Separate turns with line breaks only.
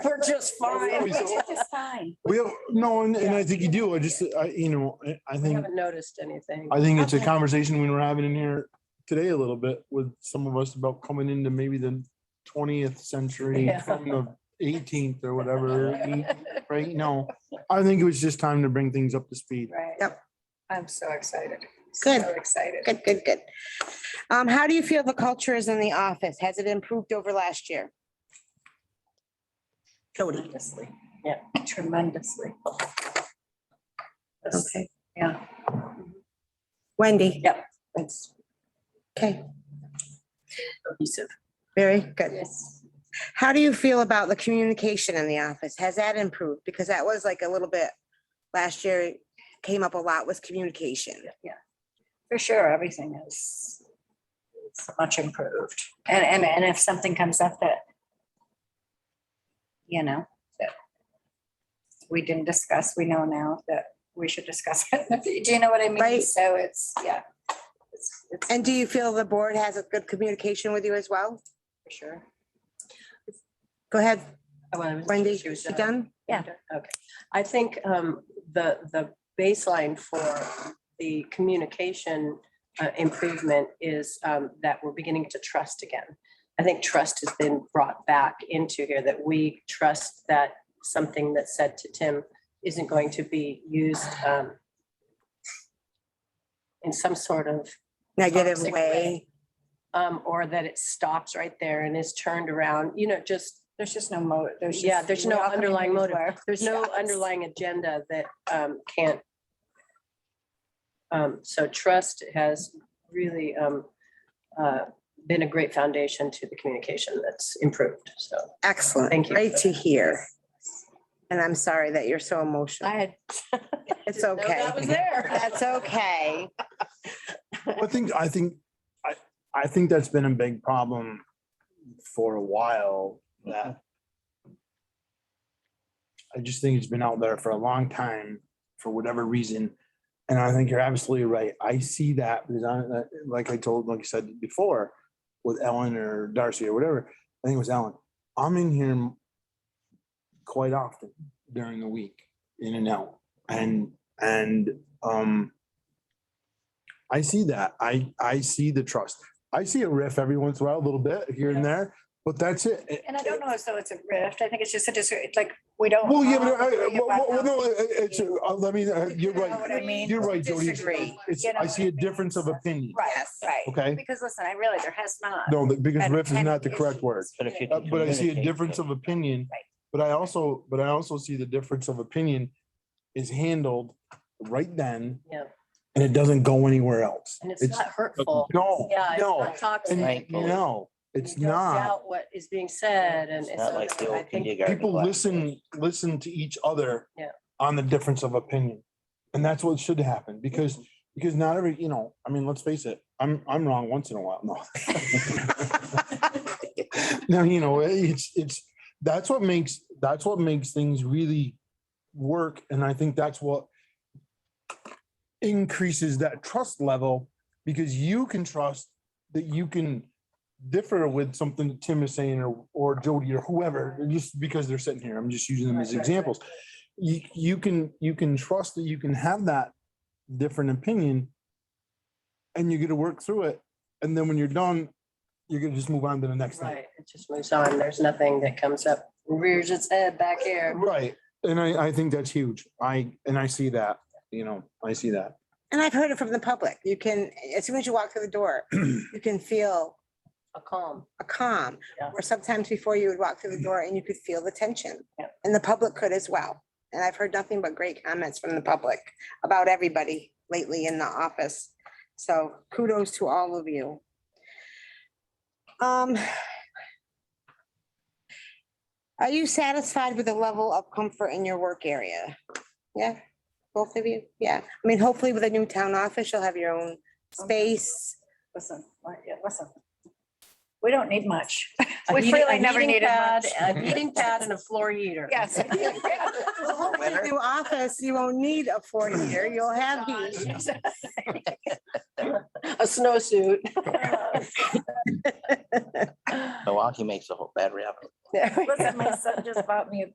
We're just fine.
Always
We
Just fine.
We have, no, and, and I think you do. I just, I, you know, I- I think,
haven't noticed anything.
I think it's a
Okay.
conversation we were having in here today a little bit with some of us about coming into maybe the twentieth century
Yeah.
from the eighteenth or whatever, right? No, I think it was just time to bring things up to speed.
Right.
Yep.
I'm so excited.
Good.
So Excited.
Good, good, good. Um, how do you feel the culture is in the office? Has it improved over last year? Jody.
Tremendously. Yeah. Tremendously.
Okay.
Yeah.
Wendy.
Yep. It's
Okay,
cohesive.
very good.
Yes.
How do you feel about the communication in the office? Has that improved? Because that was like a little bit, last year it came up a lot with communication.
For sure, everything is so much improved. And, and, and if something comes up that, you know, that we didn't discuss, we know now that we should discuss it. Do you know what I mean?
Right.
So it's, yeah. It's, it's
And do you feel the board has a good communication with you as well?
for sure.
Go ahead,
Well, I was-
Wendy.
she
You
was uh, done.
done?
Yeah. Okay. I think um, the, the baseline for the communication uh, improvement is um, that we're beginning to trust again. I think trust has been brought back into here, that we trust that something that's said to Tim isn't going to be used um, in some sort of
Negative
Toxic
way.
way. um, or that it stops right there and is turned around, you know, just,
There's just no motive. There's just-
Yeah, there's
we
no
all come in
underlying
with
motive.
our
there's no
shots.
underlying agenda that um, can't. Um, So trust has really um, uh, been a great foundation to the communication that's improved, so.
Excellent.
Thank you.
Great to hear. And I'm sorry that you're so emotional.
had.
It's okay.
That was there.
That's okay.
I think, I think, I, I think that's been a big problem for a while that I just think it's been out there for a long time for whatever reason. And I think you're absolutely right. I see that because I, like I told, like you said before, with Ellen or Darcy or whatever, I think it was Ellen. I'm in here quite often during the week, in and out. And, and, um, I see that. I, I see the trust. I see a riff every once in a while, a little bit here and there, but that's it. It-
And I don't know if so it's a rift. I think it's just a dis, it's like, we don't.
Well, yeah,
all
but, I-
agree
well,
about
well, no,
nothing.
it- it's, uh, let me, uh,
You
you're
know what
right.
I mean?
You're right, Jody. It's-
Disagree.
It's,
You know
I
what
see
I
a
mean?
difference of opinion.
Right, right.
Okay?
Because listen, I realize there has not.
No, that- because
been
riff is
any
not the correct
issues.
word.
But if you
Uh,
can
But I see a
communicate
difference
it.
of opinion.
Right.
But I also, but I also see the difference of opinion is handled right then.
Yeah.
And it doesn't go anywhere else.
And it's not hurtful.
No,
Yeah, it's
no,
not toxic.
and
Right.
no,
You
it's
don't
not.
doubt What is being said and.
It's not
so
like the
I
old
think-
kindergarten.
people
class.
listen, listen to each other.
Yeah.
On the difference of opinion. And that's what should happen because, because not every, you know, I mean, let's face it, I'm, I'm wrong once in a while. No. No, you know, it's, it's, that's what makes, that's what makes things really work. And I think that's what increases that trust level because you can trust that you can differ with something that Tim is saying or, or Jody or whoever, just because they're sitting here. I'm just using them as
Right, right, right.
examples. You, you can, you can trust that you can have that different opinion and you get to work through it. And then when you're done, you're gonna just move on to the next thing.
Right, it just moves on. There's nothing that comes up, rears its head back here.
Right. And I, I think that's huge. I, and I see that, you know, I see that.
And I've heard it from the public. You can, as soon as you walk through the door, you can feel
A calm.
a calm.
Yeah. Mm-hmm.
Where sometimes before you would walk through the door and you could feel the tension.
Yeah.
And the public could as well. And I've heard nothing but great comments from the public about everybody lately in the office. So kudos to all of you. Um. Are you satisfied with the level of comfort in your work area? Yeah, both of you? Yeah. I mean, hopefully with a new town office, you'll have your own space.
Listen, like, yeah, listen. We don't need much.
A
We
heating-
really
a
never
heating
needed
pad-
much.
A heating pad and a floor heater.
Yes.
Well, with your New office, you won't need a four-year, you'll have heat.
A snowsuit.
Milwaukee makes a whole battery of it.
There we go.
Listen, my son just bought me a